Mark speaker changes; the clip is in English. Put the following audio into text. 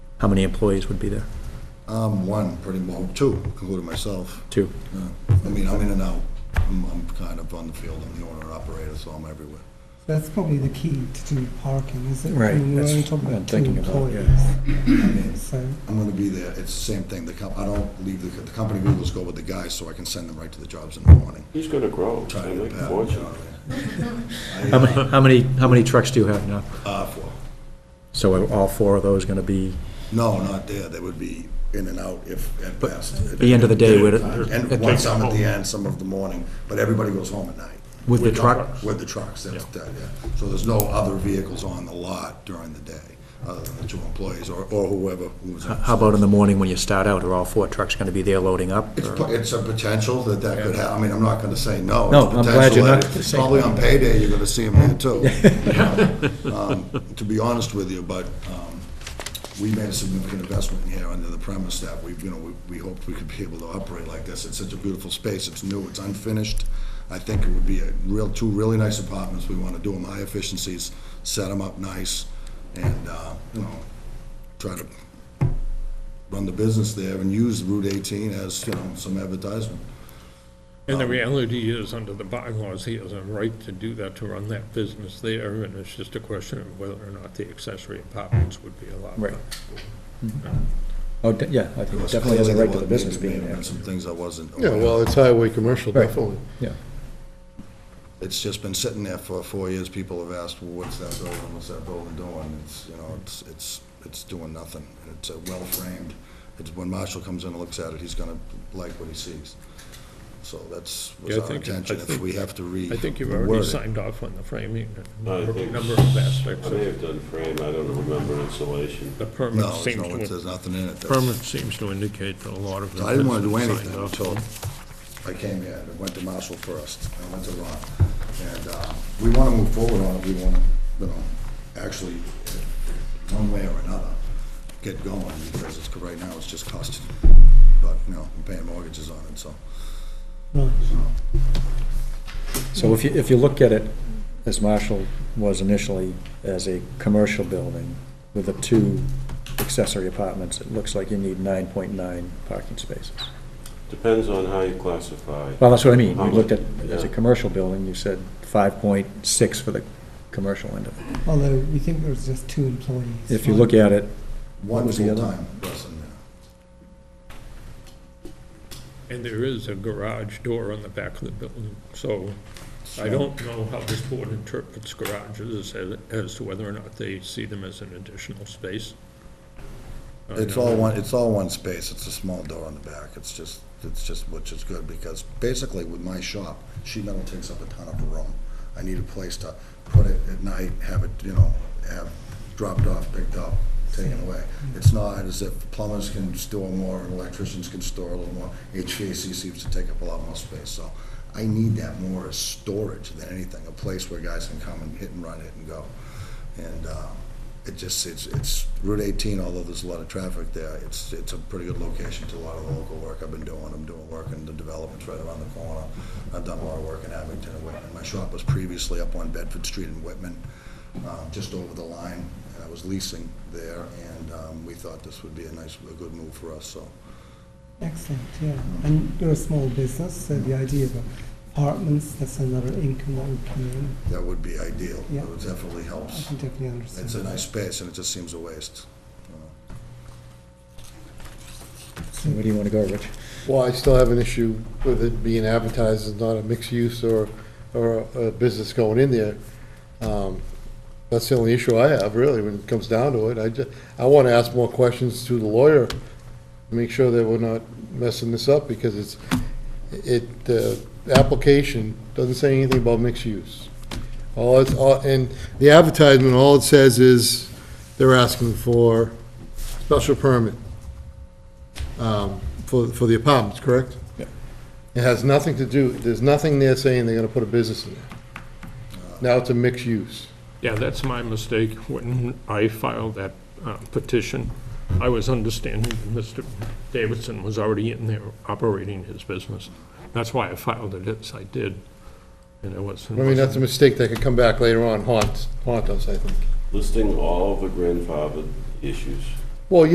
Speaker 1: How many employees would be there?
Speaker 2: I'm one, pretty well, two, including myself.
Speaker 1: Two.
Speaker 2: Yeah. I mean, I'm in and out. I'm, I'm kind of on the field, I'm the owner operator, so I'm everywhere.
Speaker 3: That's probably the key to do parking, is it?
Speaker 1: Right,
Speaker 3: I mean, we're
Speaker 1: that's
Speaker 3: only talking
Speaker 1: what I'm
Speaker 3: about two
Speaker 1: thinking about, yeah.
Speaker 3: employees. So,
Speaker 2: I'm gonna be there, it's the same thing, the comp, I don't leave, the, the company rules go with the guys, so I can send them right to the jobs in the morning.
Speaker 4: He's gonna grow, he's
Speaker 2: Try to
Speaker 4: gonna make
Speaker 2: get
Speaker 4: a
Speaker 2: that,
Speaker 4: fortune.
Speaker 2: you
Speaker 1: How
Speaker 2: know.
Speaker 1: many, how many, how many trucks do you have now?
Speaker 2: I, uh, for-
Speaker 1: So are all four of those gonna be,
Speaker 2: No, not there, they would be in and out if, at best. At
Speaker 1: the end of the day, would it-
Speaker 2: And
Speaker 1: at
Speaker 2: one,
Speaker 1: the-
Speaker 2: some at the end, some of the morning, but everybody goes home at night.
Speaker 1: with the truck?
Speaker 2: With the trucks, that's, that, yeah. So there's no other vehicles on the lot during the day, other than the two employees or, or whoever who's.
Speaker 1: H- How about in the morning when you start out, are all four trucks gonna be there loading up?
Speaker 2: It's,
Speaker 1: or-
Speaker 2: po- it's a potential that that could happen. I mean, I'm not gonna say no.
Speaker 1: No,
Speaker 2: It's
Speaker 1: I'm glad you're
Speaker 2: potential
Speaker 1: not
Speaker 2: that-
Speaker 1: gonna say
Speaker 2: Probably
Speaker 1: no.
Speaker 2: on payday, you're gonna see them there too. Um, To be honest with you, but, um, we made a significant investment here under the premise that we, you know, we, we hoped we could be able to operate like this. It's such a beautiful space. It's new, it's unfinished. I think it would be a real, two really nice apartments. We wanna do them high efficiencies, set them up nice, and, uh, you know, try to run the business there and use Route 18 as, you know, some advertisement.
Speaker 5: And
Speaker 4: Um,
Speaker 5: the reality is, under the bylaws, he has a right to do that, to run that business there, and it's just a question of whether or not the accessory apartments would be allowed. Uh,
Speaker 1: Right. Oh, de- yeah, I think it
Speaker 2: Because
Speaker 1: definitely has a
Speaker 2: clearly
Speaker 1: right to the
Speaker 2: there was-
Speaker 1: business
Speaker 2: maybe
Speaker 1: being
Speaker 2: there
Speaker 1: there.
Speaker 2: were Some things I wasn't.
Speaker 6: Yeah,
Speaker 2: aware of.
Speaker 6: well, it's highway commercial,
Speaker 1: Right.
Speaker 6: definitely.
Speaker 1: Yeah,
Speaker 2: It's just been sitting there for four years. People have asked, well, what's that building, what's that building doing? It's, you know, it's, it's, it's doing nothing. It's uh, well-framed. It's, when Marshall comes in and looks at it, he's gonna like what he sees. So that's, was
Speaker 5: Yeah, I
Speaker 2: our
Speaker 5: think-
Speaker 2: intention.
Speaker 5: I
Speaker 2: If
Speaker 5: think-
Speaker 2: we have to re.
Speaker 5: I think you've
Speaker 2: word
Speaker 5: already
Speaker 2: it.
Speaker 5: signed off on the framing, a
Speaker 4: I
Speaker 5: number
Speaker 4: think-
Speaker 5: number of aspects
Speaker 4: I
Speaker 5: of
Speaker 4: may
Speaker 5: it.
Speaker 4: have done frame, I don't remember insulation.
Speaker 5: The permit
Speaker 2: No, there's
Speaker 5: seems
Speaker 2: no,
Speaker 5: to,
Speaker 2: there's nothing in it. That's-
Speaker 5: permit seems to indicate that a lot of. it
Speaker 2: So I didn't want to do
Speaker 5: has been
Speaker 2: anything
Speaker 5: signed off
Speaker 2: until I
Speaker 5: on.
Speaker 2: came here, I went to Marshall first, I went to Ron. And uh, we want to move forward on it, we want to, you know, actually, uh, one way or another, get going, because it's, right now, it's just costing. But, you know, we're paying mortgages on it, so.
Speaker 3: right.
Speaker 1: so if you, if you look at it, as Marshall was initially, as a commercial building with the two accessory apartments, it looks like you need nine point nine parking spaces.
Speaker 4: Depends on how you classify.
Speaker 1: Well, that's what I mean,
Speaker 4: How
Speaker 1: we looked at,
Speaker 4: much?
Speaker 1: as a
Speaker 4: Yeah.
Speaker 1: commercial building, you said five point six for the commercial end of it.
Speaker 3: Although we think there's just two employees.
Speaker 1: If you
Speaker 3: right?
Speaker 1: look at it, What
Speaker 2: One
Speaker 1: was the other?
Speaker 2: full-time person there.
Speaker 5: And there is a garage door on the back of the building, so I don't know how this board interprets garages as, as to whether or not they see them as an additional space. I
Speaker 2: It's
Speaker 5: don't know.
Speaker 2: all one, it's all one space, it's a small door on the back, it's just, it's just, which is good, because basically with my shop, sheet metal takes up a ton of room. I need a place to put it at night, have it, you know, have dropped off, picked up, taken away. It's not as if plumbers can store more, and electricians can store a little more, HVAC seems to take up a lot more space, so I need that more as storage than anything, a place where guys can come and hit and run, hit and go. And, uh, it just, it's, it's Route 18, although there's a lot of traffic there, it's, it's a pretty good location to a lot of the local work I've been doing. I'm doing work in the developments right around the corner. I've done a lot of work in Abington and Whitman. My shop was previously up on Bedford Street in Whitman, uh, just over the line, and I was leasing there, and um, we thought this would be a nice, a good move for us, so.
Speaker 3: Excellent, yeah. And you're a small business, so the idea of apartments, that's another income that would come in.
Speaker 2: That would be ideal.
Speaker 3: Yeah.
Speaker 2: It would definitely
Speaker 3: I
Speaker 2: helps.
Speaker 3: can definitely understand.
Speaker 2: It's a
Speaker 3: that.
Speaker 2: nice space, and it just seems a waste. you know.
Speaker 1: where do you want to go, Rich?
Speaker 6: Well, I still have an issue with it being advertised as not a mixed use or, or a business going in there. Um, That's the only issue I have, really, when it comes down to it. I just, I want to ask more questions to the lawyer, to make sure that we're not messing this up, because it's, it, the application doesn't say anything about mixed use. All it's, all- and the advertisement, all it says is they're asking for special permit um, for, for the apartments, correct?
Speaker 1: Yeah.
Speaker 6: It has nothing to do, there's nothing there saying they're gonna put a business in there. Now it's a mixed use.
Speaker 5: Yeah, that's my mistake. When I filed that uh, petition, I was understanding that Mr. Davidson was already in there operating his business. That's why I filed it as I did, and it
Speaker 6: I
Speaker 5: wasn't.
Speaker 6: mean, that's a mistake that could come back later on, haunt, haunt us, I think.
Speaker 4: Listing all of the grandfathered issues